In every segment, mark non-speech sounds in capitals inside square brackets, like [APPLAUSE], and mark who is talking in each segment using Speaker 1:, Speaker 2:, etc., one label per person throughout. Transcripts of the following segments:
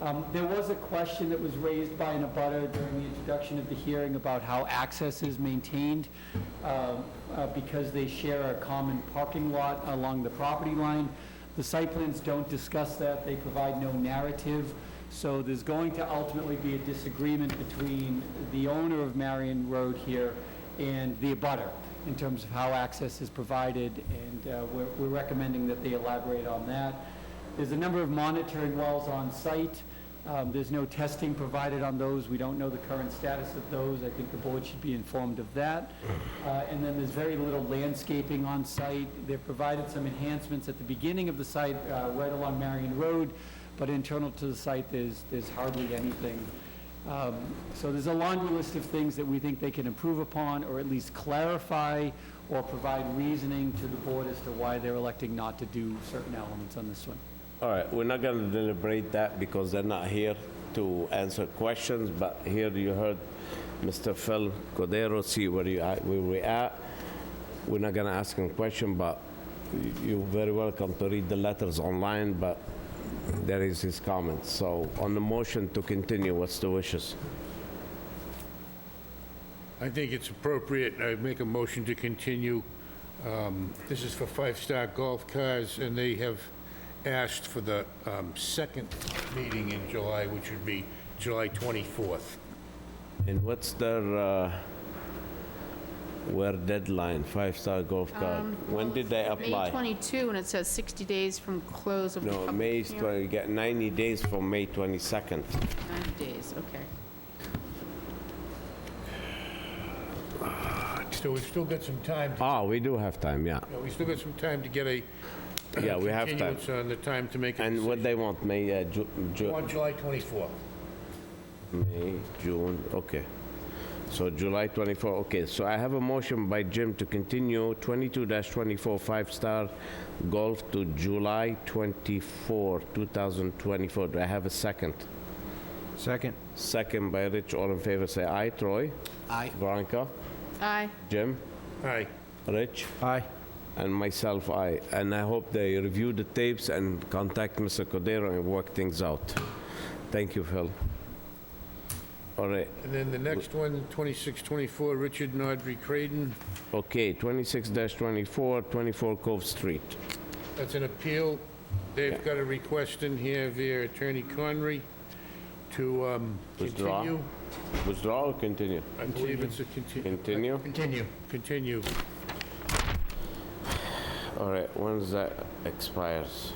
Speaker 1: Um, There was a question that was raised by an abutter during the introduction of the hearing about how access is maintained um, uh, because they share a common parking lot along the property line. The site plans don't discuss that, they provide no narrative, so there's going to ultimately be a disagreement between the owner of Marion Road here and the abutter in terms of how access is provided, and uh, we're we're recommending that they elaborate on that. There's a number of monitoring wells on site. Um, There's no testing provided on those. We don't know the current status of those. I think the board should be informed of that. Uh, And then there's very little landscaping on site. They've provided some enhancements at the beginning of the site, uh, right along Marion Road, but internal to the site, there's, there's hardly anything. Um, So there's a laundry list of things that we think they can improve upon, or at least clarify, or provide reasoning to the board as to why they're electing not to do certain elements on this one.
Speaker 2: All right, we're not going to deliberate that because they're not here to answer questions, but here you heard Mr. Phil Cordero, see where you at, where we at. We're not going to ask him question, but y- you're very welcome to read the letters online, but there is his comments. So on the motion to continue, what's the wishes?
Speaker 3: I think it's appropriate, I make a motion to continue. Um, This is for Five Star Golf Cars, and they have asked for the um, second meeting in July, which would be July 24th.
Speaker 2: And what's their, uh, where deadline, Five Star Golf Card? When did they apply?
Speaker 4: May 22, and it says 60 days from close of
Speaker 2: No,
Speaker 4: public
Speaker 2: May,
Speaker 4: hearing.
Speaker 2: 20 you get 90 days from May 22nd.
Speaker 4: 90 days, okay.
Speaker 3: So we've still got some time, to-
Speaker 2: Ah, we do have time, yeah.
Speaker 3: you know, we've still got some time to get a uh,
Speaker 2: Yeah, we have time.
Speaker 3: continuance on the time to make a
Speaker 2: And
Speaker 3: decision.
Speaker 2: what they want, May, uh, Ju- Ju-
Speaker 3: On July 24th.
Speaker 2: May, June, okay. So July 24, okay, so I have a motion by Jim to continue 22-24 five-star golf to July 24, 2024. Do I have a second?
Speaker 5: Second.
Speaker 2: Second by Rich, all in favor, say aye. Troy?
Speaker 5: Aye.
Speaker 2: Veronica?
Speaker 4: Aye.
Speaker 2: Jim?
Speaker 3: Aye.
Speaker 2: Rich?
Speaker 5: Aye.
Speaker 2: and myself, I. And I hope they review the tapes and contact Mr. Cordero and work things out. Thank you, Phil. All right,
Speaker 3: And then the next one, 2624, Richard and Audrey Creighton.
Speaker 2: okay, 26-24, 24 Cove Street.
Speaker 3: That's an appeal. They've got a request in here via Attorney Conry to um,
Speaker 2: Withdraw.
Speaker 3: continue.
Speaker 2: Withdraw or continue?
Speaker 3: I believe it's a continue.
Speaker 2: Continue?
Speaker 3: Continue. Continue.
Speaker 2: All right, when does that expires?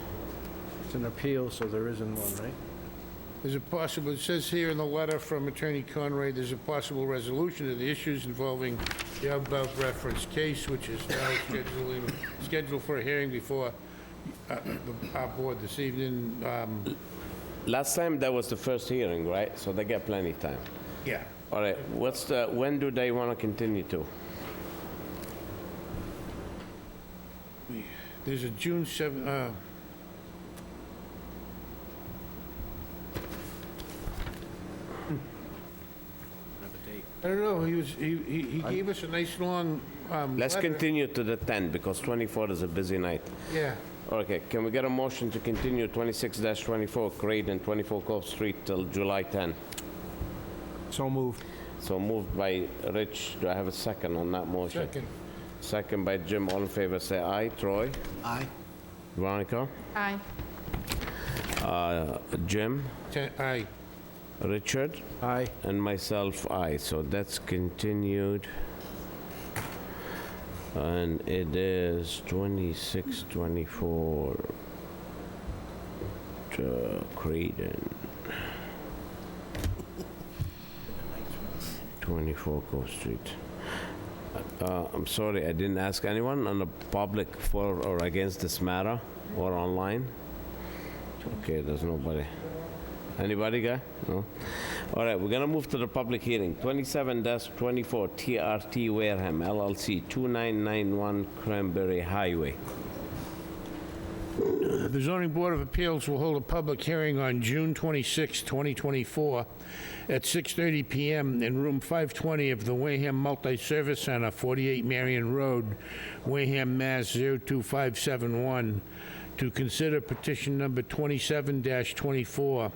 Speaker 5: It's an appeal, so there isn't one, right?
Speaker 3: There's a possible, it says here in the letter from Attorney Conry, there's a possible resolution of the issues involving the above referenced case, which is now [COUGHS] scheduling, scheduled for a hearing before uh, the- our board this evening. Um,
Speaker 2: Last time, that was the first hearing, right? So they get plenty of time.
Speaker 3: Yeah.
Speaker 2: All right, what's the, when do they want to continue to?
Speaker 3: There's a June 7, uh, I don't know, he was, he, he he gave us a nice long, um,
Speaker 2: Let's
Speaker 3: letter.
Speaker 2: continue to the 10, because 24 is a busy night.
Speaker 3: Yeah,
Speaker 2: Okay, can we get a motion to continue 26-24 Creighton, 24 Cove Street till July 10?
Speaker 5: So moved.
Speaker 2: So moved by Rich, do I have a second on that motion?
Speaker 3: second.
Speaker 2: Second by Jim, all in favor, say aye. Troy?
Speaker 5: Aye.
Speaker 2: Veronica?
Speaker 4: Aye.
Speaker 2: Uh, Jim?
Speaker 3: Ten- Aye.
Speaker 2: Richard?
Speaker 5: Aye.
Speaker 2: And myself, aye. So that's continued. And it is 2624 to Creedon. 24 Cove Street. Uh, I'm sorry, I didn't ask anyone on the public for or against this matter or online. Okay, there's nobody. Anybody guy? No? All right, we're gonna move to the public hearing. 27-24 TRT Wareham LLC, 2991 Cranberry Highway.
Speaker 3: The zoning board of appeals will hold a public hearing on June 26, 2024, at 6:30 PM in room 520 of the Wareham Multi-Service Center, 48 Marion Road, Wareham, Mass. 02571, to consider petition number 27-24